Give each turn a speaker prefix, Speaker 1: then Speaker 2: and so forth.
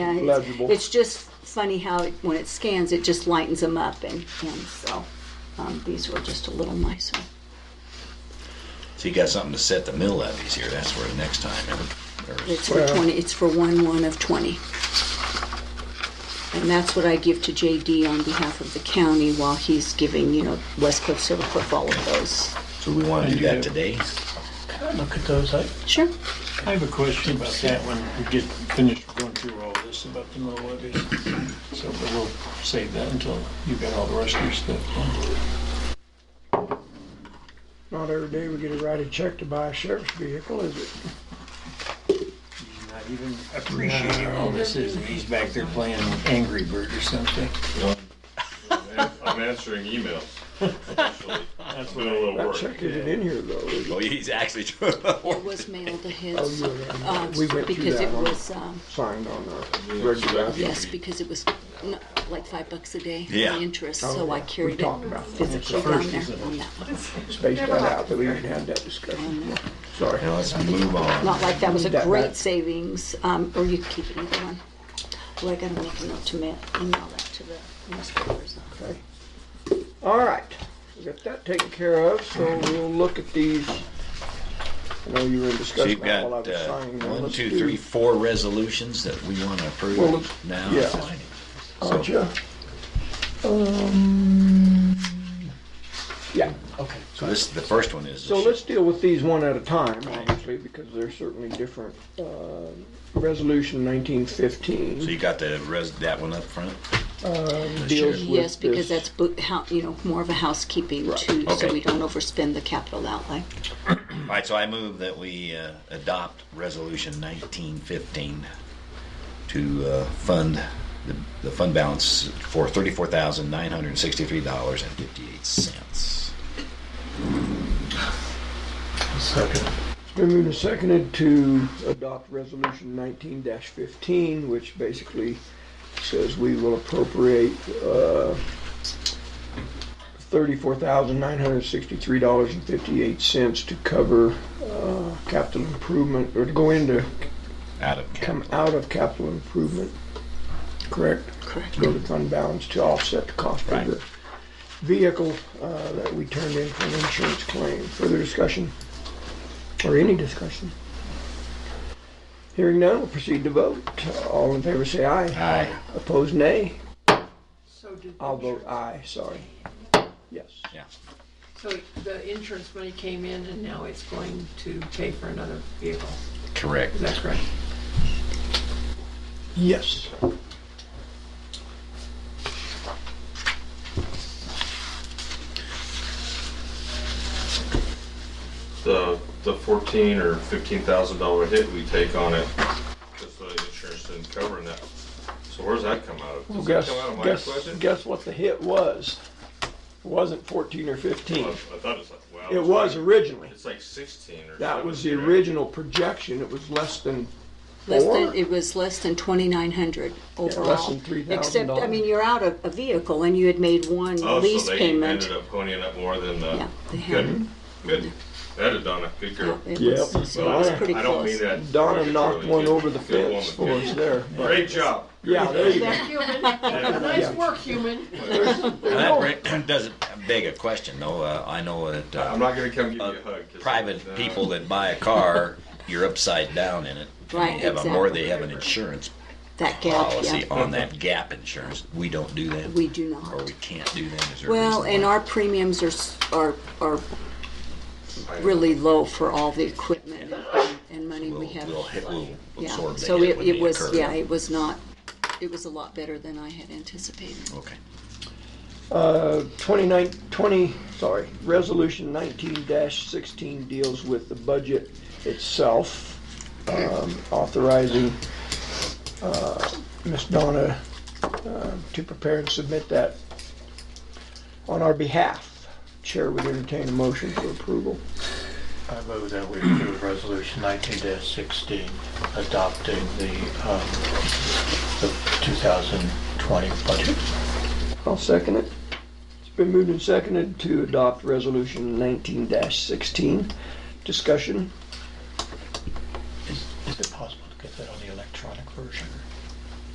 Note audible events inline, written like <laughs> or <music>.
Speaker 1: Yeah, it's-
Speaker 2: Legible.
Speaker 1: It's just funny how, it- when it scans, it just lightens them up and, and so, um, these were just a little nicer.
Speaker 3: So you got something to set the mill levies here. That's where the next time. Or, or
Speaker 1: It's for
Speaker 2: Well-
Speaker 1: twenty, it's for one one of twenty. And that's what I give to JD on behalf of the county while he's giving, you know, West Cliff, Silver Cliff, all of those.
Speaker 3: so we want to do that today.
Speaker 4: Can I look at those? I,
Speaker 1: Sure.
Speaker 4: I have a question about that when we get finished going through all this about the mill levies. So but we'll save that until you've got all the rest of your stuff.
Speaker 2: Not every day we get to write a check to buy a sheriff's vehicle, is it?
Speaker 4: He's not even appreciating all this is, and he's back there playing Angry Bird or something.
Speaker 5: I'm answering emails.
Speaker 2: <laughs>
Speaker 5: actually.
Speaker 4: That's
Speaker 5: Doing a little
Speaker 2: That
Speaker 5: work.
Speaker 2: check isn't in here though, is it?
Speaker 3: Oh, he's actually true.
Speaker 1: It was mailed to
Speaker 2: Oh,
Speaker 1: his,
Speaker 2: you were right.
Speaker 1: uh,
Speaker 2: We went through
Speaker 1: because
Speaker 2: that
Speaker 1: it
Speaker 2: one.
Speaker 1: was, um,
Speaker 2: Signed on our
Speaker 5: Yeah,
Speaker 2: regular.
Speaker 5: so-
Speaker 1: yes, because it was n- like five bucks a day for
Speaker 3: Yeah.
Speaker 1: the interest, so I
Speaker 2: Oh, yeah. We
Speaker 1: carried
Speaker 2: talked
Speaker 1: it
Speaker 2: about that.
Speaker 1: physically
Speaker 4: It's the
Speaker 1: down
Speaker 4: first,
Speaker 1: there
Speaker 4: isn't it?
Speaker 1: on that one.
Speaker 2: Space that out, that we didn't have that discussion. Sorry.
Speaker 3: Now let's move on.
Speaker 1: Not like that was a
Speaker 2: That-
Speaker 1: great
Speaker 2: that-
Speaker 1: savings, um, or you could keep it either one. Well, I gotta make a note to ma- email that to the newspapers.
Speaker 2: Okay. All right, we got that taken care of, so we'll look at these. I know you were in
Speaker 3: So
Speaker 2: discussion
Speaker 3: you've got
Speaker 2: while I was
Speaker 3: uh,
Speaker 2: signing. them.
Speaker 3: one,
Speaker 2: Let's
Speaker 3: two,
Speaker 2: do-
Speaker 3: three, four resolutions that we want to approve
Speaker 2: Well, let's-
Speaker 3: now.
Speaker 2: yeah. Uh, Aren't you? Um, Yeah,
Speaker 3: So this the first one is.
Speaker 2: so let's deal with these one at a time, obviously, because they're certainly different. Uh, Resolution nineteen
Speaker 3: so
Speaker 2: fifteen
Speaker 3: you got the res, that one up front.
Speaker 2: deals with
Speaker 1: Yes, because that's,
Speaker 2: this-
Speaker 1: bo- how, you know, more of a housekeeping too, so
Speaker 3: Okay.
Speaker 1: we don't overspend the capital outlay.
Speaker 3: All right. So I move that we uh, adopt resolution 1915 to uh, fund the, the fund balance for thirty-four thousand nine hundred sixty-three dollars and fifty-eight cents.
Speaker 4: Second.
Speaker 2: It's Been moved and seconded to adopt resolution nineteen fifteen, which basically says we will appropriate, uh, thirty-four thousand nine hundred sixty-three dollars and fifty-eight cents to cover, uh, capital improvement, or to go into,
Speaker 3: Out of
Speaker 2: come
Speaker 3: capital.
Speaker 2: out of capital improvement, correct?
Speaker 1: Correct.
Speaker 2: Go to fund balance to offset the cost of
Speaker 3: Right.
Speaker 2: the vehicle, uh, that we turned in for an insurance claim. Further discussion? Or any discussion? Hearing none, we'll proceed to vote. All in favor say aye.
Speaker 3: Aye.
Speaker 2: Opposed, nay.
Speaker 6: So did,
Speaker 2: I'll vote aye, sorry. Yes.
Speaker 3: Yeah.
Speaker 6: so the insurance money came in and now it's going to pay for another vehicle,
Speaker 3: Correct.
Speaker 6: is that correct?
Speaker 2: Yes.
Speaker 5: The, the fourteen or fifteen thousand dollar hit we take on it, because the insurance didn't cover that. So where's that come out of?
Speaker 2: Well,
Speaker 5: Does that
Speaker 2: guess,
Speaker 5: come out of my
Speaker 2: guess,
Speaker 5: question?
Speaker 2: guess what the hit was? It wasn't 14 or 15.
Speaker 5: Oh, I I thought it was like, wow.
Speaker 2: It
Speaker 5: it's
Speaker 2: was
Speaker 5: like-
Speaker 2: originally.
Speaker 5: It's like sixteen or
Speaker 2: That was the
Speaker 5: 17, right?
Speaker 2: original projection. It was less than
Speaker 1: Less
Speaker 2: Or-
Speaker 1: than, it was less than twenty-nine hundred overall.
Speaker 2: than $3,000.
Speaker 1: Except, I mean, you're out of a vehicle and you had made one
Speaker 5: Oh,
Speaker 1: lease
Speaker 5: so they
Speaker 1: payment.
Speaker 5: ended up ponying up more than the,
Speaker 1: Yeah, they had.
Speaker 5: good, good. That is Donna, good
Speaker 1: Yeah,
Speaker 5: girl.
Speaker 1: it
Speaker 2: Yep.
Speaker 1: was- So it was
Speaker 5: Well,
Speaker 1: pretty
Speaker 5: I don't mean
Speaker 1: close.
Speaker 5: that.
Speaker 2: Donna
Speaker 5: Really
Speaker 2: knocked
Speaker 5: good.
Speaker 2: one over the
Speaker 5: Good woman,
Speaker 2: fence for
Speaker 5: good.
Speaker 2: us there. but-
Speaker 5: Great job.
Speaker 2: Yeah, there you go.
Speaker 6: Human, nice work, human.
Speaker 3: Well, that bring- doesn't beg a question, though. Uh, I know that
Speaker 5: I'm
Speaker 3: uh,
Speaker 5: not gonna come give you a hug. 'cause-
Speaker 3: private
Speaker 5: No.
Speaker 3: people that buy a car, you're upside down in it.
Speaker 1: Right,
Speaker 3: They have a, or
Speaker 1: exactly.
Speaker 3: they have an insurance
Speaker 1: That gap,
Speaker 3: policy
Speaker 1: yeah.
Speaker 3: on that gap insurance. We don't do that,
Speaker 1: We do
Speaker 3: or
Speaker 1: not.
Speaker 3: we can't do that. Is there a
Speaker 1: Well,
Speaker 3: reason
Speaker 1: and
Speaker 3: why?
Speaker 1: our premiums are, s- are, are really low for all the equipment and- and money
Speaker 3: we'll,
Speaker 1: we have.
Speaker 3: we'll, hit- we'll
Speaker 1: Yeah,
Speaker 3: absorb that
Speaker 1: so
Speaker 3: hit
Speaker 1: it,
Speaker 3: when
Speaker 1: it
Speaker 3: they
Speaker 1: was,
Speaker 3: occur.
Speaker 1: yeah, it was not, it was a lot better than I had anticipated.
Speaker 3: Okay.
Speaker 2: Uh, 29, 20, sorry, Resolution 19-16 deals with the budget itself, um, authorizing uh, Ms. Donna uh, to prepare and submit that on our behalf. Chair would entertain a motion for approval.
Speaker 7: I move that we approve resolution nineteen sixteen adopting the, um, the two thousand twenty budget.
Speaker 2: I'll second it. It's been moved and seconded to adopt Resolution 19-16. Discussion?